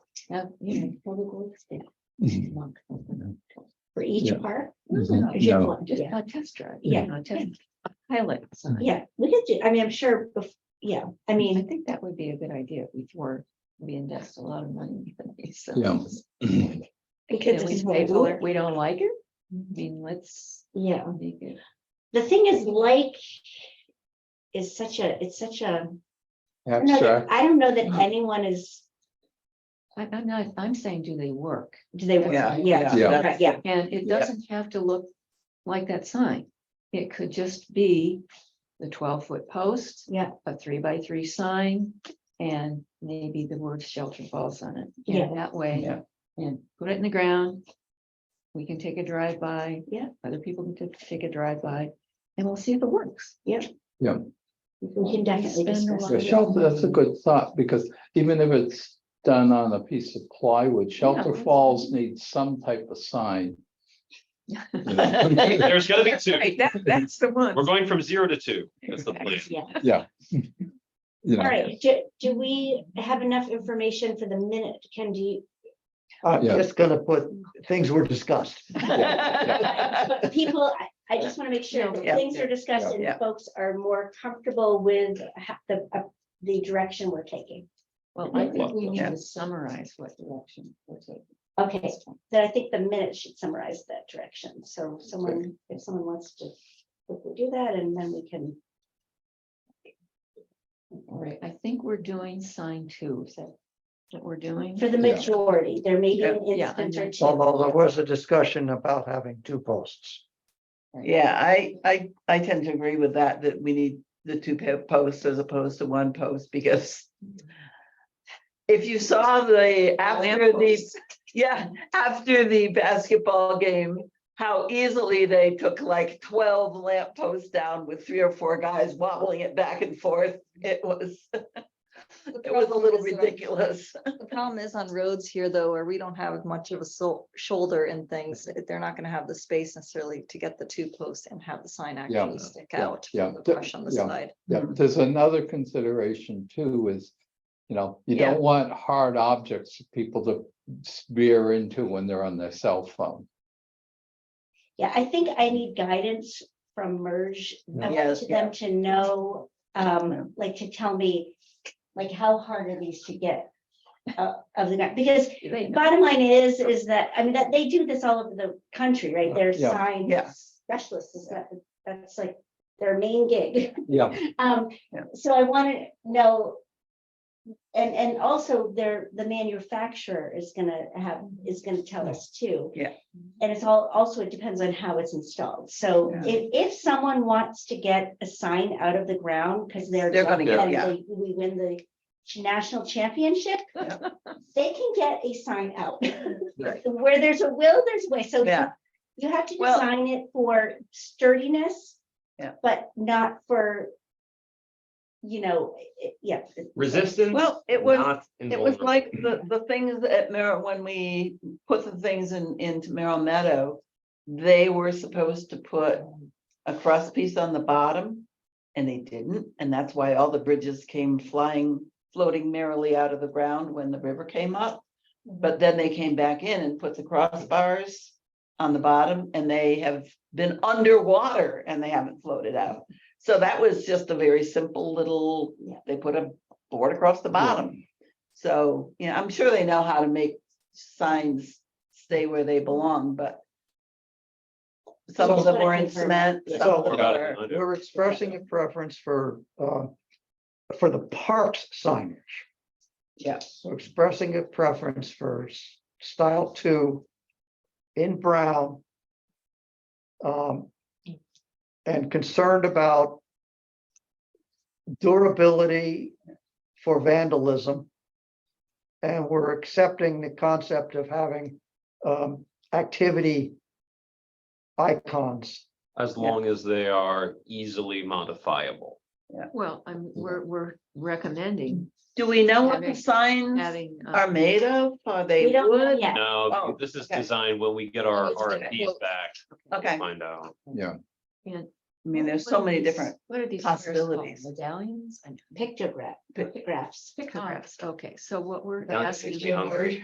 of, you know, public works staff. Mhm. month. For each Yeah. part? Mhm. Or Just No. one, just Yeah. a test drive. Yeah. you know, just a Pilot. sign. Yeah, we could do, I mean, I'm sure, bef- yeah, I I mean, think that would be a good idea before we invest a lot of money. in these Yeah. things. because Can we it's say, one "Ooh, color. we don't like it? I mean, let's Yeah, make it. the thing is like is such a, it's such a, I don't know that- Abstract. I don't know that Uh-huh. anyone is, I- I'm not, I'm saying, do they work? do they, Yeah, yeah, yeah, yeah, right, yeah. And it Yeah. doesn't have to look like that sign. It could just be the twelve foot post. Yeah. A three by three sign and maybe the word shelter falls on it. And Yeah. That way, Yeah. and put it in the ground. We can take a drive by. Yeah. Other people can ta- take a drive by and we'll see if it works. We can definitely spend a discuss. lot Yeah, of- it. shelter, that's a good thought, because even if it's done on a piece of plywood, Shelter that's- Falls needs some type of sign. There's gonna be two. Right, that, that's the one. We're going from zero to two. That's the plan. Yeah, You all know, right, do, do we have enough information for the minute, Ken, do you? I'm Yeah. just gonna put, things were discussed. But People, I, I just want to make sure that Yeah. things are discussed and Yeah. folks are more comfortable with ha- the, uh, the direction we're taking. Well, I think we need Yeah. to summarize what direction we're taking. Okay, then I think the minute should summarize that direction. So someone, if someone wants to quickly do that and then we can, All right, I think we're doing sign two, is that what we're doing? for the Yeah. majority, there may be an Yeah, yeah, I instance or know. two. Although there was a discussion about having two posts. Yeah, I, I, I tend to agree with that, that we need the two po- posts as opposed to one post because if you saw the, after the, Lamppost. yeah, after the basketball game, how easily they took like twelve lamp posts down with three or four guys wobbling it back and forth. It was, it was a problem little is that I- ridiculous. The problem is on roads here though, where we don't have much of a so- shoulder and things, Mm-hmm. they're not gonna have the space necessarily to get the two posts and have the sign actually stick yeah, out. yeah, from The the- brush on the yeah. side. Yeah, there's another consideration too is, you know, you Yeah. don't want hard objects for people to spear into when they're on their cell phone. Yeah, I think I need guidance from merge. I want Yes, to them to know, um, like to tell me, like how hard are these to get? uh, Of the, guy- because They know. Bottom line is, is that, I mean, that they do this all over the country, right? They're Yeah. sign Yeah. specialists, is that, that's like their main gig. Yeah. Um, Yeah. so I want to know. And, and also their, the manufacturer is gonna have, is gonna tell us too. Yeah. And it's all, also it depends on how it's installed. So Yeah. if, if someone wants to get a sign out of the ground, because they're. They're gonna get- and yeah. they- We win the national championship, Yeah. they can get a sign out. Right. Where there's a will, there's a way. So Yeah. you have to Well- design it for sturdiness. Yeah. But not for, you know, i- i- yeah. Resistance. Well, it was- not It was invulnerable. like the, the things at Merrill, when we put the things in, into Merrill Meadow, they were supposed to put a crust piece on the bottom, and they didn't, and that's why all the bridges came flying, floating merrily out of the ground when the river came up. But then they came back in and put the crossbars on the bottom, and they have been underwater and they haven't floated out. So that was just a very simple little, Yeah. they put a board across the bottom. So, you know, I'm sure they know how to make signs stay where they belong, but some That's of them what I were in confirm. cement, some So- of them Forgot it, were, I know. We're expressing a preference for, uh, for the parks signage. Yeah. We're expressing a preference for s- style two in brown. Um, and concerned about durability for vandalism. And we're accepting the concept of having, um, activity icons. As long as they are easily modifiable. Well, I'm, we're, we're recommending do we know what Having- the signs adding. uh, are made of? Are they um, We don't know wood? yet. No, Oh, this is okay. designed when we get our It's gonna RFPs float. back, Okay, I find out. Yeah. and mean, there's what so are many these- different, What are these? squares called? possibilities. Medallions? I know. Pictograph, pictographs. Pictographs, okay, so what we're Now it asking. makes me you- hungry.